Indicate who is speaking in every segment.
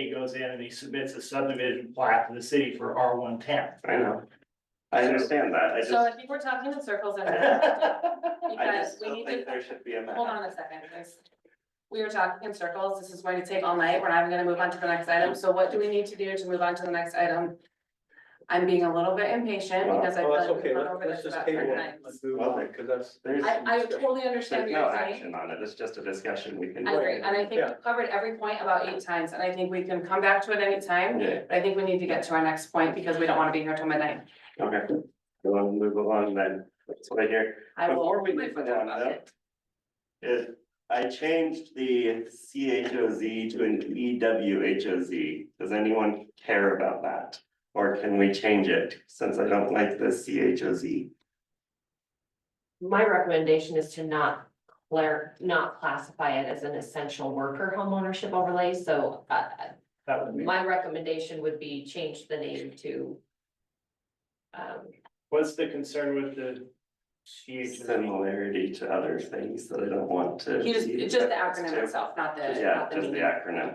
Speaker 1: he goes in and he submits a subdivision plat to the city for R one ten.
Speaker 2: I know. I understand that, I just,
Speaker 3: So I think we're talking in circles and
Speaker 2: I
Speaker 3: because
Speaker 2: just
Speaker 3: we
Speaker 2: don't
Speaker 3: need to,
Speaker 2: think there should be a
Speaker 3: hold
Speaker 2: map.
Speaker 3: on a second, guys. We were talking in circles. This is going to take all night. We're not even gonna move on to the next item. So what do we need to do to move on to the next item? I'm being a little bit impatient because I feel
Speaker 4: Well, that's
Speaker 3: like
Speaker 4: okay,
Speaker 3: we've gone
Speaker 4: let's,
Speaker 3: over
Speaker 4: let's
Speaker 3: this
Speaker 4: just
Speaker 3: about three
Speaker 4: table
Speaker 3: nights.
Speaker 4: it, let's move on, because that's.
Speaker 2: There's,
Speaker 3: I, I totally understand
Speaker 2: there's
Speaker 3: what
Speaker 2: no
Speaker 3: you're saying.
Speaker 2: action on it, it's just a discussion we can.
Speaker 3: I agree, and I think
Speaker 4: Yeah.
Speaker 3: we've covered every point about eight times, and I think we can come back to it anytime.
Speaker 2: Yeah,
Speaker 3: But I think we need to get to our next point because we don't wanna be here till midnight.
Speaker 2: okay, we'll move along then, that's what I hear.
Speaker 3: I will.
Speaker 2: Before we
Speaker 3: my
Speaker 2: move
Speaker 3: foot
Speaker 2: on,
Speaker 3: down about
Speaker 2: though,
Speaker 3: it.
Speaker 2: If I changed the C H O Z to an E W H O Z, does anyone care about that? Or can we change it, since I don't like the C H O Z?
Speaker 5: My recommendation is to not clear, not classify it as an essential worker homeownership overlay, so uh,
Speaker 1: That would be,
Speaker 5: my recommendation would be change the name to. Um,
Speaker 1: what's the concern with the CHO?
Speaker 2: Similarity to other things that I don't want to.
Speaker 3: He just,
Speaker 2: be
Speaker 3: it's just the
Speaker 2: referenced
Speaker 3: acronym
Speaker 2: to.
Speaker 3: itself, not the,
Speaker 2: Yeah,
Speaker 3: not the
Speaker 2: just the
Speaker 3: meaning.
Speaker 2: acronym.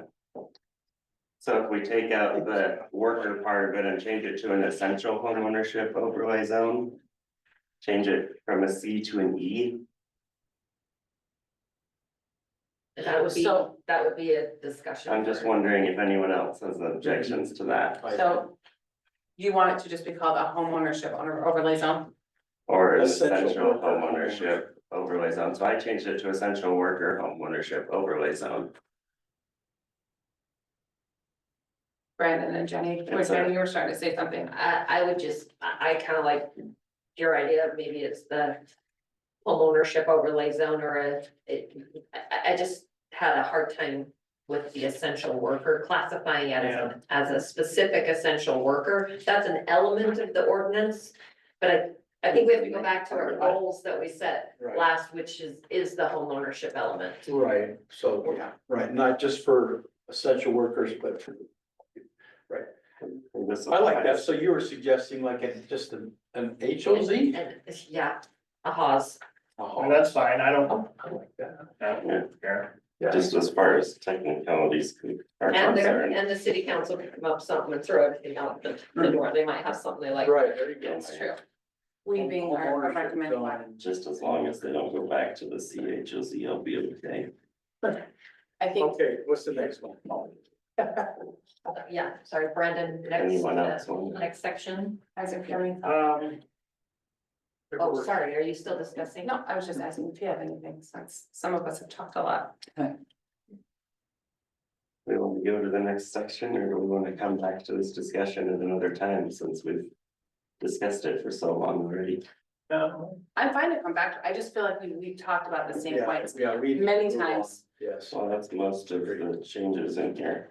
Speaker 2: So if we take out the worker part of it and change it to an essential homeownership overlay zone. Change it from a C to an E,
Speaker 5: that would be,
Speaker 3: So-
Speaker 5: that would be a discussion.
Speaker 2: I'm just
Speaker 5: for-
Speaker 2: wondering if anyone else has objections to that.
Speaker 3: So you want it to just be called a homeownership owner overlay zone?
Speaker 2: Or
Speaker 4: Essential
Speaker 2: essential
Speaker 4: worker
Speaker 2: homeownership overlay zone, so I changed it to essential worker homeownership overlay zone.
Speaker 3: Brandon and Jenny, or
Speaker 2: It's a-
Speaker 3: Jenny, you were starting to say something.
Speaker 5: I, I would just, I, I kind of like your idea, of maybe it's the homeownership overlay zone or a, it, I, I- I just had a hard time with the essential worker, classifying it as, a- as a specific essential worker. That's an element of the ordinance, but I, I think we have to go back to our goals that we set
Speaker 4: Right,
Speaker 5: last, which is, is the homeownership element.
Speaker 4: right, so,
Speaker 2: Yeah.
Speaker 4: right, not just for essential workers, but for.
Speaker 2: And this
Speaker 4: I like that,
Speaker 2: applies-
Speaker 4: so you were suggesting like a, just an, an H O Z?
Speaker 5: And, yeah, a Haas.
Speaker 1: Well, that's fine, I don't,
Speaker 4: I like that.
Speaker 1: I don't care.
Speaker 4: Yeah.
Speaker 2: Just as far as technicalities con- are
Speaker 5: And there,
Speaker 2: concerned.
Speaker 5: and the city council can come up with something and throw everything out the,
Speaker 2: Hmm.
Speaker 5: the door, they might have something they like.
Speaker 4: Right, there you go.
Speaker 5: It's true.
Speaker 3: We being our
Speaker 4: Homeownership
Speaker 3: recommended
Speaker 4: zone.
Speaker 3: one.
Speaker 2: Just as long as they don't go back to the C H O Z, I'll be okay.
Speaker 3: I think
Speaker 4: Okay, what's the next one?
Speaker 3: Oh,
Speaker 5: Yeah, sorry, Brandon, next,
Speaker 2: Anyone else
Speaker 5: uh,
Speaker 2: want?
Speaker 5: next section.
Speaker 3: as if you're,
Speaker 1: Um,
Speaker 5: Oh, sorry, are you still discussing?
Speaker 3: no, I was just asking if you have anything, since some of us have talked a lot.
Speaker 2: We want to go to the next section or do we want to come back to this discussion at another time since we've discussed it for so long already?
Speaker 1: no,
Speaker 3: I'm fine to come back, to. I just feel like we, we talked about the same
Speaker 4: Yeah,
Speaker 3: points
Speaker 4: yeah, we-
Speaker 3: many times.
Speaker 4: Yes,
Speaker 2: Well, that's most of the changes in here.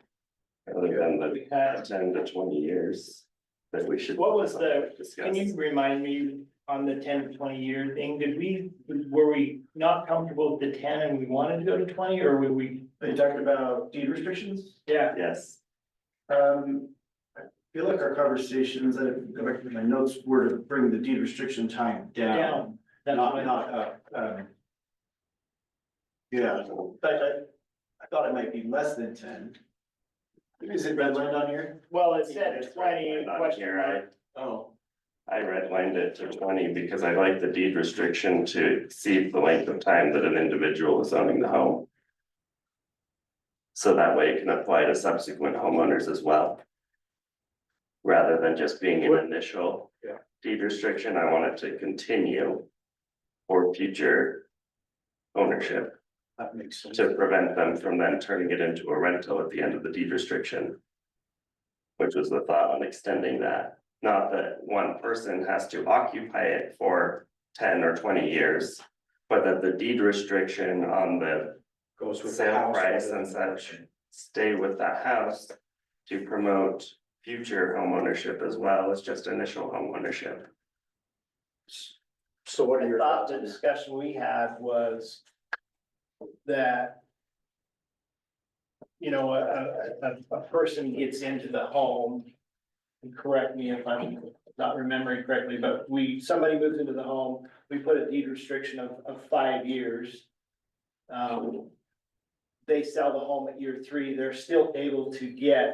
Speaker 2: Other than the
Speaker 1: we had,
Speaker 2: ten to twenty years that we should.
Speaker 1: What was the- can you
Speaker 2: Discuss.
Speaker 1: remind me on the ten to twenty year thing, did we, were we not comfortable with the ten and we wanted to go to twenty, or were we?
Speaker 6: Are you talking about deed restrictions?
Speaker 1: Yeah,
Speaker 2: Yes,
Speaker 6: Um, I feel like our conversations, I go back to my notes, were to bring the deed restriction time down,
Speaker 1: Down, that's
Speaker 6: not,
Speaker 1: what I-
Speaker 6: not up. Um, Yeah, in fact, I, I thought it might be less than ten. Is it redlined on here?
Speaker 1: well, it said twenty,
Speaker 2: Not
Speaker 1: question
Speaker 2: here, I-
Speaker 1: mark.
Speaker 6: Oh,
Speaker 2: I redlined it to twenty because I like the deed restriction to exceed the length of time that an individual is owning the home. So that way it can apply to subsequent homeowners as well. Rather than just being an initial.
Speaker 4: Yeah.
Speaker 2: Deed restriction, I want it to continue. For future. Ownership
Speaker 4: that makes sense.
Speaker 2: to prevent them from then turning it into a rental at the end of the deed restriction. Which was the thought on extending that, not that one person has to occupy it for ten or twenty years. But that the deed restriction on the
Speaker 4: Goes with. the
Speaker 2: sale
Speaker 4: house
Speaker 2: price
Speaker 4: rather
Speaker 2: and
Speaker 4: than-
Speaker 2: such stay with that house. To promote future homeownership as well as just initial homeownership.
Speaker 4: So what are
Speaker 6: I
Speaker 4: your?
Speaker 6: thought
Speaker 4: thoughts?
Speaker 6: the discussion we had was that
Speaker 1: you know, a, a, a, a person gets into the home. and Correct me if I'm not remembering correctly, but we, somebody moves into the home, we put a deed restriction of, of five years. Um, they sell the home at year three, they're still able to get